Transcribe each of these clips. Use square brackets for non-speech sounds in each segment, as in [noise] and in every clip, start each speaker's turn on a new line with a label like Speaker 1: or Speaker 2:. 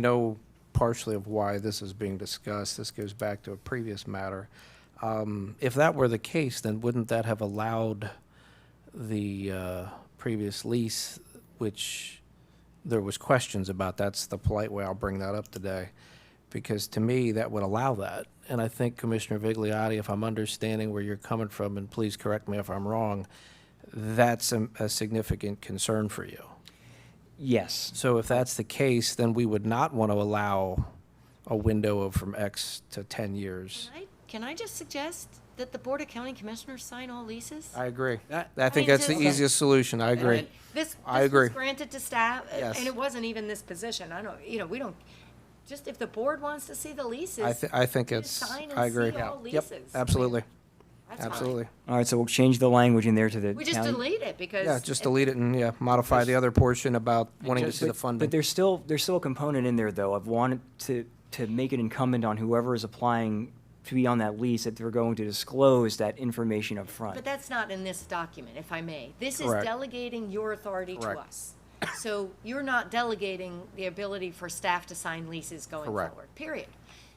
Speaker 1: know partially of why this is being discussed. This goes back to a previous matter. Um, If that were the case, then wouldn't that have allowed the uh, previous lease, which there was questions about? That's the polite way I'll bring that up today, because to me, that would allow that. And I think Commissioner Vigliotti, if I'm understanding where you're coming from, and please correct me if I'm wrong, that's a a significant concern for you.
Speaker 2: Yes,
Speaker 1: So if that's the case, then we would not want to allow a window of from X to 10 years.
Speaker 3: Can I- Can I just suggest that the Board of County Commissioners sign all leases?
Speaker 1: I agree.
Speaker 2: That-
Speaker 1: I think
Speaker 3: I mean,
Speaker 1: that's the
Speaker 3: just-
Speaker 1: easiest solution. I agree.
Speaker 3: And This, this
Speaker 1: I
Speaker 3: was
Speaker 1: agree.
Speaker 3: granted to staff, uh,
Speaker 1: Yes.
Speaker 3: and it wasn't even this position. I don't, you know, we don't, just if the board wants to see the leases.
Speaker 1: I, thi- I think
Speaker 3: you
Speaker 1: it's,
Speaker 3: sign and
Speaker 1: I agree.
Speaker 3: seal all
Speaker 1: Yep,
Speaker 3: leases. I mean,
Speaker 1: absolutely,
Speaker 3: that's fine.
Speaker 1: absolutely.
Speaker 2: all right, so we'll change the language in there to the
Speaker 3: We just
Speaker 2: county-
Speaker 3: delete it because.
Speaker 1: Yeah, just delete it and, yeah, modify the other portion about wanting to see the
Speaker 2: But- But
Speaker 1: funding.
Speaker 2: there's still, there's still a component in there, though, of wanting to, to make it incumbent on whoever is applying to be on that lease, that they're going to disclose that information up
Speaker 3: But
Speaker 2: front.
Speaker 3: that's not in this document, if I may. This is
Speaker 1: Correct.
Speaker 3: delegating your authority to
Speaker 1: Correct.
Speaker 3: us. So you're not delegating the ability for staff to sign leases going
Speaker 1: Correct.
Speaker 3: forward, period.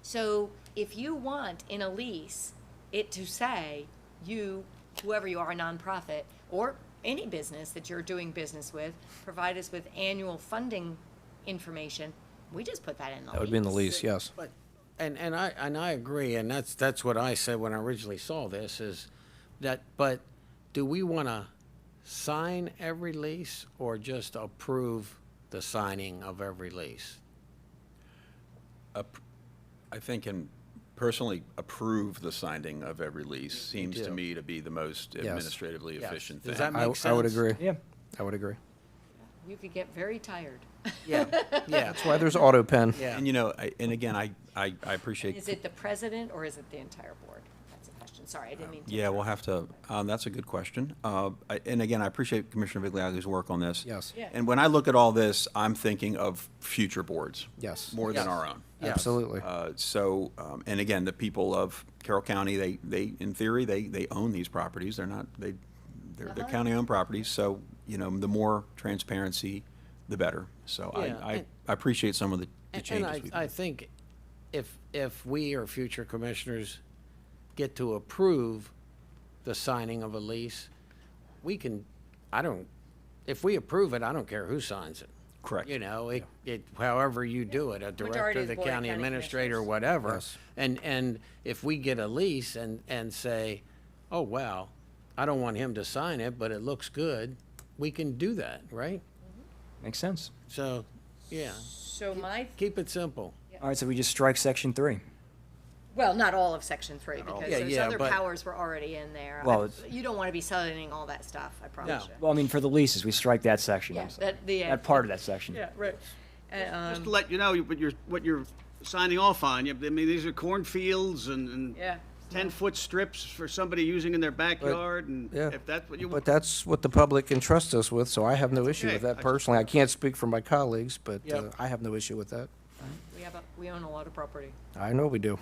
Speaker 3: So if you want in a lease it to say, you, whoever you are, a nonprofit, or any business that you're doing business with, provide us with annual funding information, we just put that in the lease.
Speaker 1: That would be in the lease, yes.
Speaker 4: But, and, and I, and I agree, and that's, that's what I said when I originally saw this, is that, but do we want to sign every lease or just approve the signing of every lease?
Speaker 5: I think and personally approve the signing of every lease seems to
Speaker 4: do.
Speaker 5: me to be the most administratively
Speaker 4: Yes.
Speaker 5: efficient thing.
Speaker 4: Does that
Speaker 1: I,
Speaker 4: make
Speaker 1: I would
Speaker 4: sense?
Speaker 1: agree.
Speaker 2: Yeah.
Speaker 1: I would agree.
Speaker 3: You could get very tired.
Speaker 4: Yeah, yeah,
Speaker 1: Why there's auto pen.
Speaker 4: yeah.
Speaker 5: And you know, I- and again, I, I I appreciate.
Speaker 3: Is it the president or is it the entire board? That's a question. Sorry, I didn't mean to.
Speaker 5: Yeah, we'll have to, um, that's a good question. Uh, I- And again, I appreciate Commissioner Vigliotti's work on this.
Speaker 1: Yes.
Speaker 3: Yeah.
Speaker 5: And when I look at all this, I'm thinking of future boards.
Speaker 1: Yes.
Speaker 5: More than
Speaker 4: Yes.
Speaker 5: our own.
Speaker 4: Yes.
Speaker 1: Absolutely.
Speaker 5: Uh, So, um, and again, the people of Carroll County, they, they, in theory, they, they own these properties. They're not, they, they're,
Speaker 4: Uh-huh.
Speaker 5: they're county-owned properties, so, you know, the more transparency, the better. So
Speaker 4: Yeah,
Speaker 5: I, I
Speaker 4: and-
Speaker 5: I appreciate some of the the
Speaker 4: And- And
Speaker 5: changes
Speaker 4: I,
Speaker 5: we've
Speaker 4: I
Speaker 5: made.
Speaker 4: think if, if we or future commissioners get to approve the signing of a lease, we can, I don't, if we approve it, I don't care who signs it.
Speaker 5: Correct.
Speaker 4: You know, it, it, however you do it, a
Speaker 3: Majority
Speaker 4: director,
Speaker 3: of the
Speaker 4: the
Speaker 3: Board of
Speaker 4: county
Speaker 3: County
Speaker 4: administrator,
Speaker 3: Commissioners.
Speaker 4: whatever.
Speaker 1: Yes.
Speaker 4: And, and if we get a lease and, and say, oh, wow, I don't want him to sign it, but it looks good, we can do that, right?
Speaker 2: Makes sense.
Speaker 4: So, yeah,
Speaker 3: So my,
Speaker 4: keep it simple.
Speaker 2: All right, so we just strike section three.
Speaker 3: well, not all of section three, because
Speaker 4: Yeah,
Speaker 3: those
Speaker 4: yeah,
Speaker 3: other
Speaker 4: but-
Speaker 3: powers were already in there. I-
Speaker 2: Well, it's-
Speaker 3: You don't want to be selling all that stuff, I promise
Speaker 4: No.
Speaker 3: you.
Speaker 2: Well, I mean, for the leases, we strike that section.
Speaker 3: Yeah,
Speaker 2: I'm sorry.
Speaker 3: that, the. uh,
Speaker 2: That part of that section.
Speaker 3: Yeah, right. Uh, um,
Speaker 6: just to let you know what you're what you're signing off on. You- I mean, these are cornfields and, and
Speaker 3: Yeah.
Speaker 6: ten foot strips for somebody using in their backyard, and
Speaker 1: yeah.
Speaker 6: if that's what you
Speaker 1: But
Speaker 6: want.
Speaker 1: that's what the public entrusts us with, so I have no issue with
Speaker 6: okay.
Speaker 1: that
Speaker 6: I-
Speaker 1: personally. I can't speak for my colleagues, but uh,
Speaker 4: Yep.
Speaker 1: I have no issue with that.
Speaker 3: We have, a- we own a lot of property.
Speaker 1: I know we do.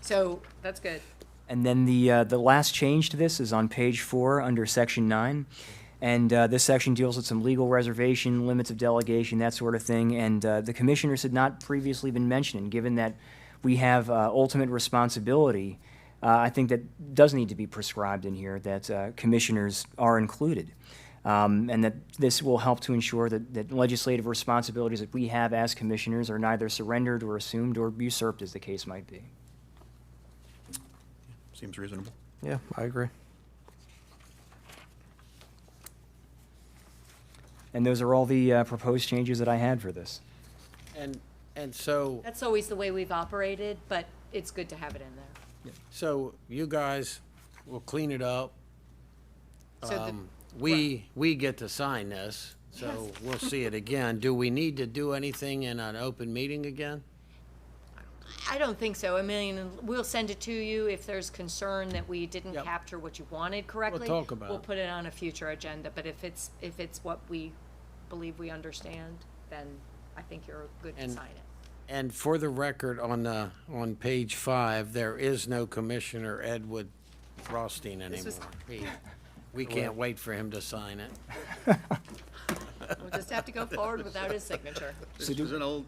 Speaker 3: So that's good.
Speaker 2: And then the, uh, the last change to this is on page four, under section nine. And, uh, this section deals with some legal reservation, limits of delegation, that sort of thing. And, uh, the commissioners had not previously been mentioned, and given that we have, uh, ultimate responsibility. Uh, I think that does need to be prescribed in here, that, uh, commissioners are included. Um, and that this will help to ensure that, that legislative responsibilities that we have as commissioners are neither surrendered or assumed or usurped, as the case might be.
Speaker 5: Seems reasonable.
Speaker 1: Yeah, I agree.
Speaker 2: And those are all the uh, proposed changes that I had for this.
Speaker 4: And, and so,
Speaker 3: That's always the way we've operated, but it's good to have it in there.
Speaker 4: so you guys will clean it up.
Speaker 3: So the-
Speaker 4: Um, We, we get to sign this, so we'll see it again. Do we need to do anything in an open meeting again?
Speaker 3: I don't think so. I mean, we'll send it to you if there's concern that we didn't
Speaker 4: Yep.
Speaker 3: capture what you wanted correctly.
Speaker 4: talk about
Speaker 3: We'll
Speaker 4: it.
Speaker 3: put it on a future agenda, but if it's, if it's what we believe we understand, then I think you're good to
Speaker 4: And-
Speaker 3: sign it.
Speaker 4: And for the record, on, uh, on page five, there is no Commissioner Edward Rothstein anymore.
Speaker 3: was-
Speaker 4: He- We can't wait for him to sign it. [laughs]
Speaker 3: We'll just have to go forward without his signature.
Speaker 6: This is an old